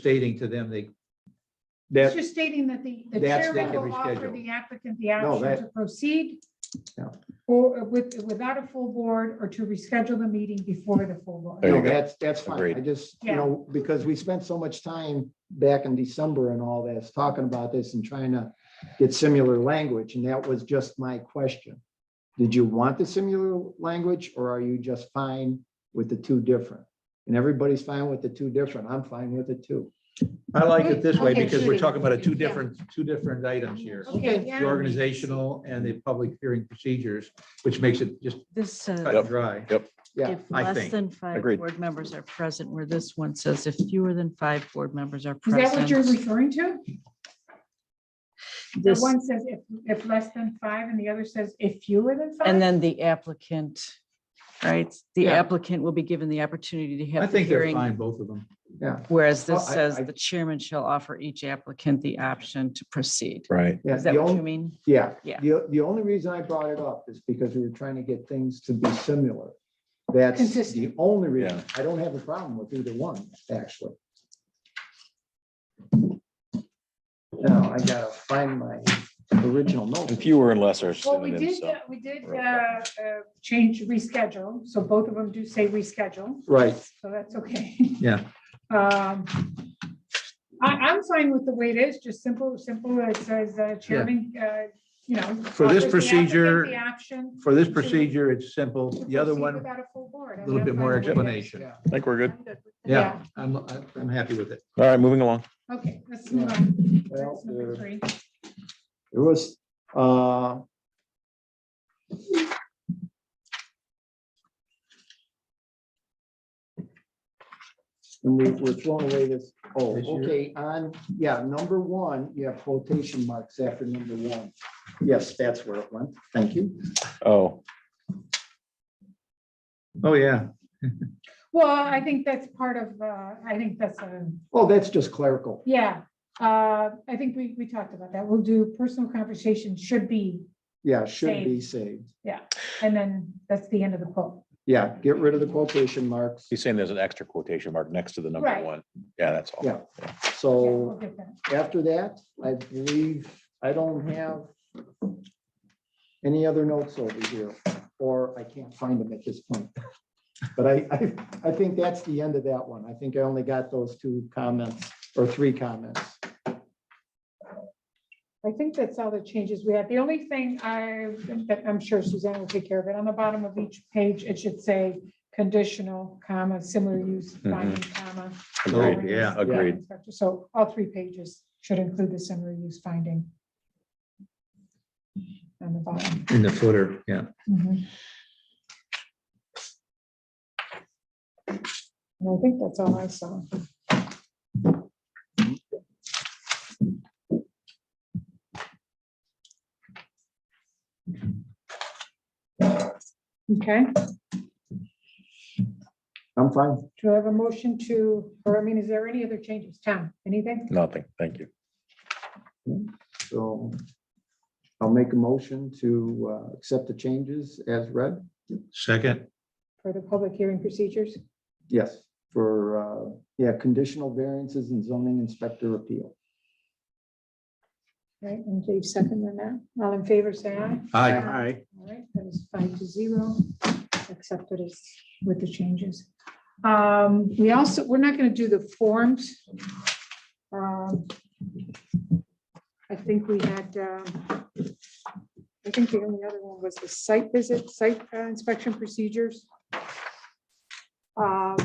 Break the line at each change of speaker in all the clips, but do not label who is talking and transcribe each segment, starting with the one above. stating to them they,
That,
It's just stating that the, the
That's
chairman
that can
will offer
reschedule.
the applicant the
No,
option
that-
to proceed
Yeah.
or with, without a full board or to reschedule the meeting before the full
There
board.
you
no,
go.
that's, that's fine.
Agreed.
I just, you
Yeah.
know, because we spent so much time back in December and all this, talking about this and trying to get similar language, and that was just my question. Did you want the similar language, or are you just fine with the two different? And everybody's fine with the two different. I'm fine with the two.
I like it this way
Okay,
because we're
Judy.
talking about a two
Yeah.
different, two different items here.
Okay,
Okay.
yeah.
The organizational and the public hearing procedures, which makes it just
This
cut
Yep.
says
and dry.
Yeah,
if
I
less
think.
than five
Agreed.
board members are present, where this one says if fewer than five board members are
Is that what you're
present.
referring to? The
This,
one says if, if less than five and the other says if fewer than five?
and then the applicant, right? The
Yeah.
applicant will be given the opportunity to
I
have the
think they're
hearing.
fine, both of them.
Whereas
Well,
this
I-
says
I-
the chairman shall offer each applicant the option to proceed.
Right.
yeah.
Is that
the
what
only-
you mean?
Yeah.
Yeah.
The, the only reason I brought it up is because we were trying to get things to be similar. That's the
Consistent.
only reason.
Yeah.
I don't have a problem with either one, actually. Now, I gotta find my original note.
And fewer and less are
Well, we
synonyms.
did,
so-
uh, we did
Roll
uh,
call.
uh, change reschedule, so both of them do say reschedule,
Right,
so that's okay.
Yeah.
Um, I, I'm fine with the way it is, just simple, simple, it says uh, chairman, uh, you know.
For this
offers the applicant
procedure-
The option.
For this procedure, it's simple.
to
The other
proceed
one,
Without a full board. I
a
mean,
little
I'm
bit
fine
more
with it.
explanation.
I think we're good.
I'm good with it.
Yeah, I'm, I'm happy with it.
All right, moving along.
Yeah, Okay, let's move on. That's number
well,
three.
there was, uh. And we, we're throwing away this, oh,
This year?
okay, on, yeah, number one, you have quotation marks after number one. Yes, that's where it went. Thank you.
Oh,
Oh, yeah.
Well, I think that's part of, uh, I think that's a
Oh, that's just clerical.
Yeah, uh, I think we, we talked about that. We'll do personal conversation should be,
Yeah, should be saved.
and then that's the end of the quote.
Yeah, get rid of the quotation marks.
he's saying there's an extra quotation mark next to the number
Right.
one. Yeah, that's all.
Yeah.
Yeah,
So.
we'll get that.
after that, I believe I don't have any other notes over here, or I can't find them at this point. But I, I, I think that's the end of that one. I think I only got those two comments or three comments.
I think that's all the changes we had. The only thing I, that I'm sure Suzanne will take care of it. On the bottom of each page, it should say conditional, comma, similar use, finding, comma.
Agreed.
warrants,
yeah,
agreed.
inspector. So all three pages should include the similar use finding. On the bottom.
In the footer, yeah.
Mhm. And I think that's all I saw. Okay,
I'm fine.
do I have a motion to, or I mean, is there any other changes? Tom, anything?
Nothing. Thank you.
So I'll make a motion to uh, accept the changes as read.
Second,
For the public hearing procedures?
Yes, for, uh, yeah, conditional variances and zoning inspector appeal.
Right, and Dave second on that. All in favor, say aye.
aye.
All right, that is five to zero, accepted as with the changes. Um, we also, we're not gonna do the forms. Um, I think we had, um, I think the only other one was the site visit, site uh, inspection procedures. Um,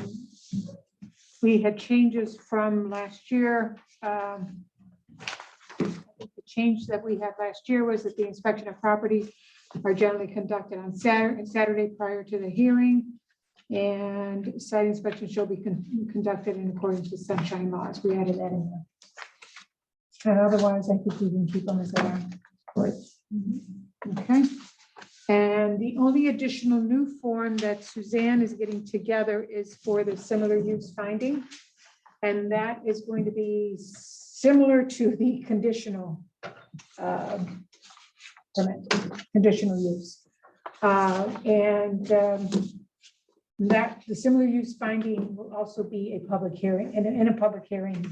we had changes from last year, um, I think the change that we had last year was that the inspection of properties are generally conducted on Saturday, Saturday prior to the hearing. And site inspection shall be con- conducted in accordance with sunshine laws. We added that in there. And otherwise, I think we can keep them as they are. Mm-hmm.
Right.
Okay. And the only additional new form that Suzanne is getting together is for the similar use finding. And that is going to be similar to the conditional um, permit, conditional use. Uh, And um, that, the similar use finding will also be a public hearing, in a, in a public hearing